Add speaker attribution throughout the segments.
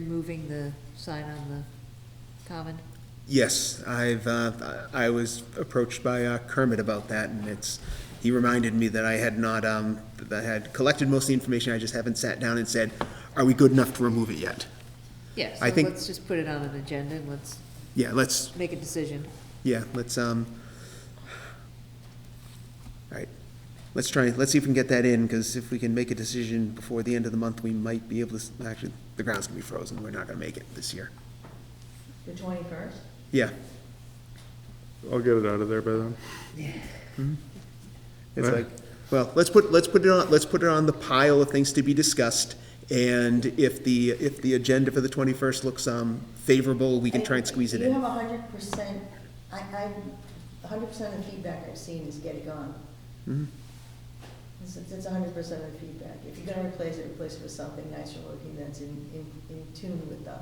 Speaker 1: removing the sign on the common?
Speaker 2: Yes, I've, uh, I I was approached by uh, Kermit about that, and it's, he reminded me that I had not, um, that I had collected most of the information, I just haven't sat down and said, are we good enough to remove it yet?
Speaker 1: Yeah, so
Speaker 2: I think-
Speaker 1: let's just put it on an agenda and let's
Speaker 2: Yeah, let's,
Speaker 1: make a decision.
Speaker 2: yeah, let's, um, all right, let's try, let's see if we can get that in, because if we can make a decision before the end of the month, we might be able to, s- actually, the ground's gonna be frozen, we're not gonna make it this year.
Speaker 3: The twenty-first?
Speaker 2: Yeah.
Speaker 4: I'll get it out of there by then.
Speaker 2: It's
Speaker 4: Right.
Speaker 2: like, well, let's put, let's put it on, let's put it on the pile of things to be discussed. And if the, if the agenda for the twenty-first looks, um, favorable, we can try and squeeze it
Speaker 3: You
Speaker 2: in.
Speaker 3: have a hundred percent, I, I, a hundred percent of the feedback I've seen is get it gone.
Speaker 2: Mhm.
Speaker 3: It's, it's a hundred percent of the feedback. If you're gonna replace it, replace it with something nicer looking that's in, in, in tune with the,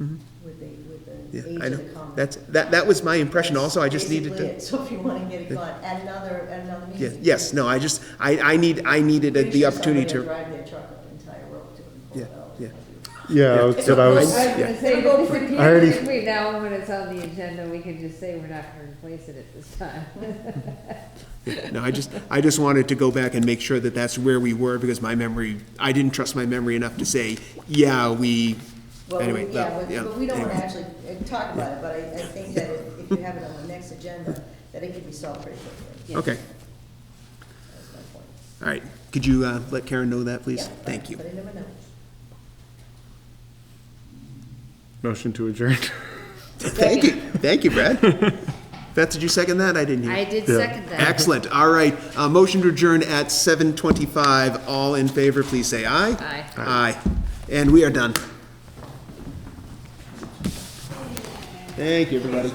Speaker 2: Mhm.
Speaker 3: with the, with
Speaker 2: Yeah,
Speaker 3: the age
Speaker 2: I
Speaker 3: of
Speaker 2: know.
Speaker 3: the common.
Speaker 2: That's, that, that was my impression also. I just
Speaker 3: Basically
Speaker 2: needed
Speaker 3: it.
Speaker 2: to,
Speaker 3: So if you wanna get it
Speaker 2: Yeah.
Speaker 3: gone, at another, at another
Speaker 2: yeah,
Speaker 3: meeting.
Speaker 2: yes, no, I just, I, I need, I needed
Speaker 3: Pretty
Speaker 2: the
Speaker 3: sure
Speaker 2: opportunity
Speaker 3: somebody will
Speaker 2: to.
Speaker 3: drive their truck up the entire road to it and pull
Speaker 2: Yeah,
Speaker 3: it out.
Speaker 2: yeah.
Speaker 4: Yeah,
Speaker 2: Yeah.
Speaker 4: that's what I was,
Speaker 2: I- yeah.
Speaker 1: Say, but if you-
Speaker 4: I already-
Speaker 1: if we now, when it's on the agenda, we can just say we're not gonna replace it at this time.
Speaker 2: No, I just, I just wanted to go back and make sure that that's where we were because my memory, I didn't trust my memory enough to say, yeah, we,
Speaker 3: Well,
Speaker 2: anyway.
Speaker 3: we- yeah,
Speaker 2: well,
Speaker 3: but, but we don't wanna
Speaker 2: anyway.
Speaker 3: actually uh, talk about it, but I, I think that if if you have it on the next agenda, that it can be solved pretty quickly,
Speaker 1: Yeah.
Speaker 2: Okay,
Speaker 3: that's my point.
Speaker 2: all right. Could you, uh, let Karen know that, please?
Speaker 3: Yeah, but-
Speaker 2: Thank you.
Speaker 3: But I never know.
Speaker 4: motion to adjourn.
Speaker 2: Thank you, thank you, Brad. Beth, did you second that? I didn't hear.
Speaker 1: I did second that.
Speaker 2: Excellent, all right. Uh, motion to adjourn at seven twenty-five. All in favor, please say aye.
Speaker 1: Aye.
Speaker 2: Aye. And we are done. Thank you, everybody.